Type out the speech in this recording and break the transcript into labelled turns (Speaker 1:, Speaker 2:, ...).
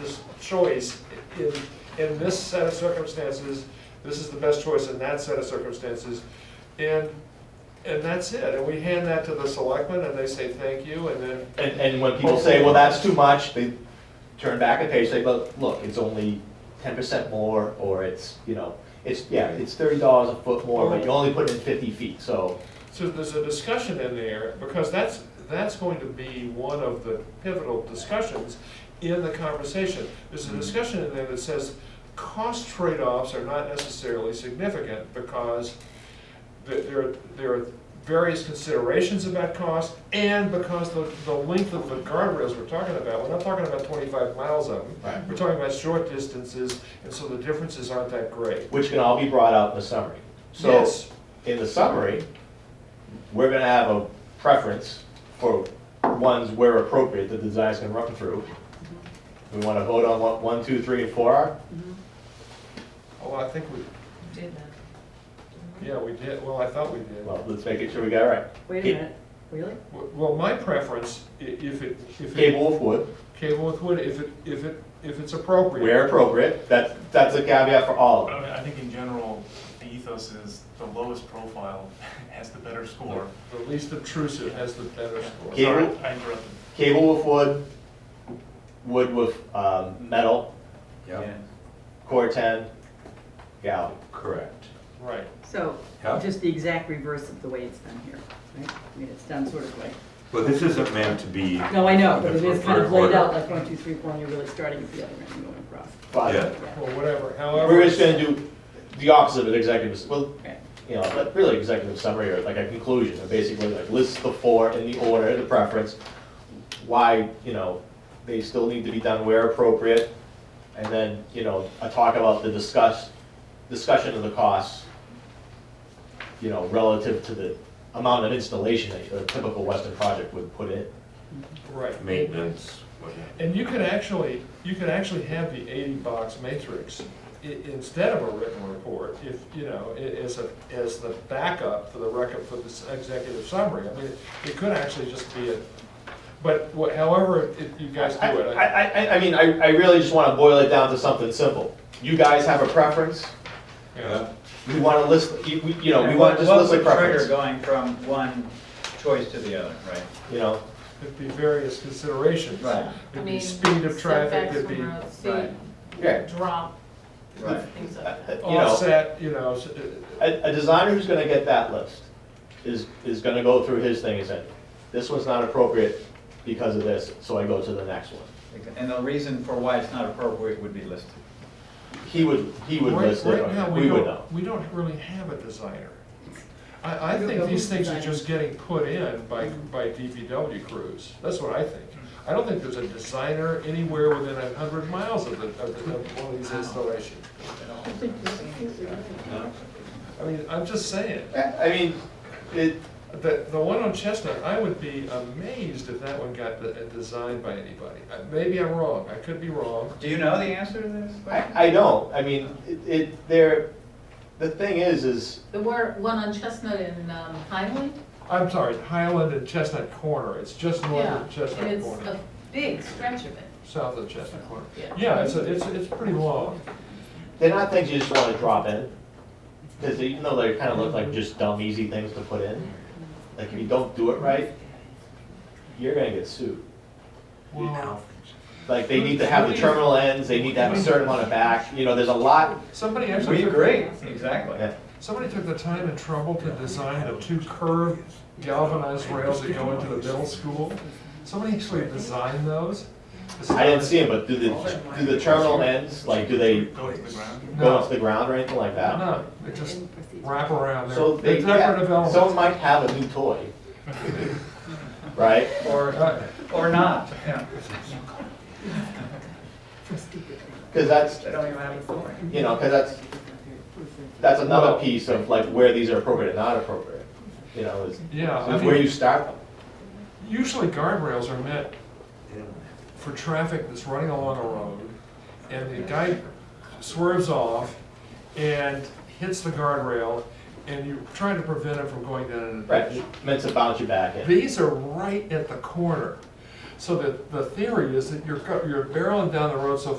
Speaker 1: this choice, in, in this set of circumstances, this is the best choice in that set of circumstances. And, and that's it, and we hand that to the selectmen, and they say thank you, and then,
Speaker 2: And, and when people say, well, that's too much, they turn back a page, say, but look, it's only ten percent more, or it's, you know, it's, yeah, it's thirty dollars a foot more, but you only put in fifty feet, so.
Speaker 1: so there's a discussion in there, because that's, that's going to be one of the pivotal discussions in the conversation. There's a
Speaker 2: Hmm.
Speaker 1: discussion in there that says, cost trade-offs are not necessarily significant, because th- there, there are various considerations about cost, and because the, the length of the guardrails we're talking about, we're not talking about twenty-five miles of them.
Speaker 2: Right.
Speaker 1: We're talking about short distances, and so the differences aren't that great.
Speaker 2: Which can all be brought out in the summary. So,
Speaker 1: Yes.
Speaker 2: in the summary, we're gonna have a preference for ones where appropriate that the design's gonna run through. We wanna vote on what one, two, three, and four are?
Speaker 1: Oh, I think we,
Speaker 3: Mm-hmm. Did that.
Speaker 1: Yeah, we did, well, I thought we did.
Speaker 2: Well, let's make it sure we got it right.
Speaker 3: Wait a
Speaker 2: Ca-
Speaker 3: minute, really?
Speaker 1: W- Well, my preference, i- if it, if
Speaker 2: Cable
Speaker 1: it,
Speaker 2: Wolf would.
Speaker 1: cable with wood, if it, if it, if it's appropriate.
Speaker 2: Where appropriate, that's, that's a caveat for all of
Speaker 4: But
Speaker 2: them.
Speaker 4: I mean, I think in general, the ethos is the lowest profile has the better score.
Speaker 1: The least obtrusive has the better score.
Speaker 2: Yeah.
Speaker 4: Sorry,
Speaker 2: Cable?
Speaker 4: I interrupted.
Speaker 2: Cable with wood, wood with um, metal,
Speaker 5: Yep,
Speaker 2: core ten, galley.
Speaker 5: correct.
Speaker 1: Right.
Speaker 3: So,
Speaker 5: Yeah.
Speaker 3: just the exact reverse of the way it's done here, right? I mean, it's done sort of like,
Speaker 5: Well, this isn't meant to be,
Speaker 3: no, I know, but it is kind of laid out
Speaker 5: Order.
Speaker 3: like one, two, three, four, and you're really starting at the other end and going across.
Speaker 2: But
Speaker 5: Yeah.
Speaker 3: Yeah.
Speaker 1: Or whatever, however.
Speaker 2: We're just gonna do the opposite of executive, well,
Speaker 3: Okay.
Speaker 2: you know, but really executive summary or like a conclusion, or basically like list the four in the order, the preference, why, you know, they still need to be done where appropriate, and then, you know, a talk about the discuss, discussion of the costs, you know, relative to the amount of installation that a typical Western project would put in.
Speaker 1: Right.
Speaker 5: maintenance, what have
Speaker 1: And you could actually, you could actually have the eighty-box matrix i- instead of a written report, if, you know, i- as a, as the backup for the record, for this executive summary. I mean, it could actually just be a, but wha- however it- you guys do
Speaker 2: I,
Speaker 1: it. I-
Speaker 2: I, I- I mean, I, I really just wanna boil it down to something simple. You guys have a preference,
Speaker 1: yeah.
Speaker 2: we wanna list, you, we- you know, we wanna just
Speaker 6: What
Speaker 2: list a
Speaker 6: would Trigger
Speaker 2: preference,
Speaker 6: going from one choice to the other, right?
Speaker 2: you know?
Speaker 1: It'd be various considerations.
Speaker 6: Right.
Speaker 1: It'd be speed of traffic, it'd be
Speaker 6: Right.
Speaker 2: Yeah,
Speaker 7: drop,
Speaker 6: Right.
Speaker 7: things
Speaker 2: Uh,
Speaker 7: like that.
Speaker 2: you know,
Speaker 1: offset, you know, s- uh,
Speaker 2: a, a designer who's gonna get that list is, is gonna go through his thing and say, this one's not appropriate because of this, so I go to the next one.
Speaker 6: And the reason for why it's not appropriate would be listed.
Speaker 2: He would, he would
Speaker 1: Right-
Speaker 2: list it,
Speaker 1: Right now,
Speaker 2: we
Speaker 1: we
Speaker 2: would
Speaker 1: don't,
Speaker 2: know.
Speaker 1: we don't really have a designer. I, I
Speaker 3: We don't
Speaker 1: think
Speaker 3: have
Speaker 1: these
Speaker 3: a
Speaker 1: things are
Speaker 3: designer.
Speaker 1: just getting put in by, by DPW crews, that's what I think. I don't think there's a designer anywhere within a hundred miles of the, of the, of one of these installations. I mean, I'm just saying,
Speaker 2: I I mean, it,
Speaker 1: the, the one on Chestnut, I would be amazed if that one got the- designed by anybody. Uh, Maybe I'm wrong, I could be wrong,
Speaker 6: Do you know the answer to this question?
Speaker 2: I, I don't, I mean, it- it, there, the thing is, is,
Speaker 7: There were one on Chestnut and um, Highland.
Speaker 1: I'm sorry, Highland and Chestnut Corner, it's just north
Speaker 7: Yeah,
Speaker 1: of Chestnut
Speaker 7: And it's
Speaker 1: Corner.
Speaker 7: a big stretch of it.
Speaker 1: south of Chestnut Corner.
Speaker 7: Yeah.
Speaker 1: Yeah, it's, a- it's, it's pretty long.
Speaker 2: they're not things you just wanna drop in. Cause even though they kinda look like just dumb, easy things to put in, like if you don't do it right, you're gonna get sued.
Speaker 1: Well,
Speaker 2: Like they need to have the terminal ends, they need to have a certain amount of back, you know, there's a lot.
Speaker 1: Somebody actually.
Speaker 6: We
Speaker 1: took-
Speaker 6: agree, exactly.
Speaker 2: Yeah.
Speaker 1: Somebody took the time and trouble to design the two curved galvanized rails that go into the middle school. Somebody actually designed those.
Speaker 2: I didn't see them, but do the, do the terminal ends, like, do they
Speaker 4: Go to the ground.
Speaker 2: go off the ground or anything like that?
Speaker 1: No, they just wrap around there.
Speaker 2: So they,
Speaker 1: They're decorative
Speaker 2: yeah, someone
Speaker 1: elements.
Speaker 2: might have a new toy. Right?
Speaker 6: Or,
Speaker 1: Uh,
Speaker 6: or not, yeah.
Speaker 2: Cause that's,
Speaker 6: They don't even have authority.
Speaker 2: you know, cause that's, that's another piece of like where these are appropriate and not appropriate, you know, is,
Speaker 1: Yeah, I
Speaker 2: is where
Speaker 1: mean-
Speaker 2: you start them.
Speaker 1: Usually guardrails are meant for traffic that's running along a road, and the guy swerves off and hits the guardrail, and you're trying to prevent him from going down an
Speaker 2: Right,
Speaker 1: ditch.
Speaker 2: meant to bounce you back in.
Speaker 1: These are right at the corner. So that the theory is that you're, go- you're barreling down the road so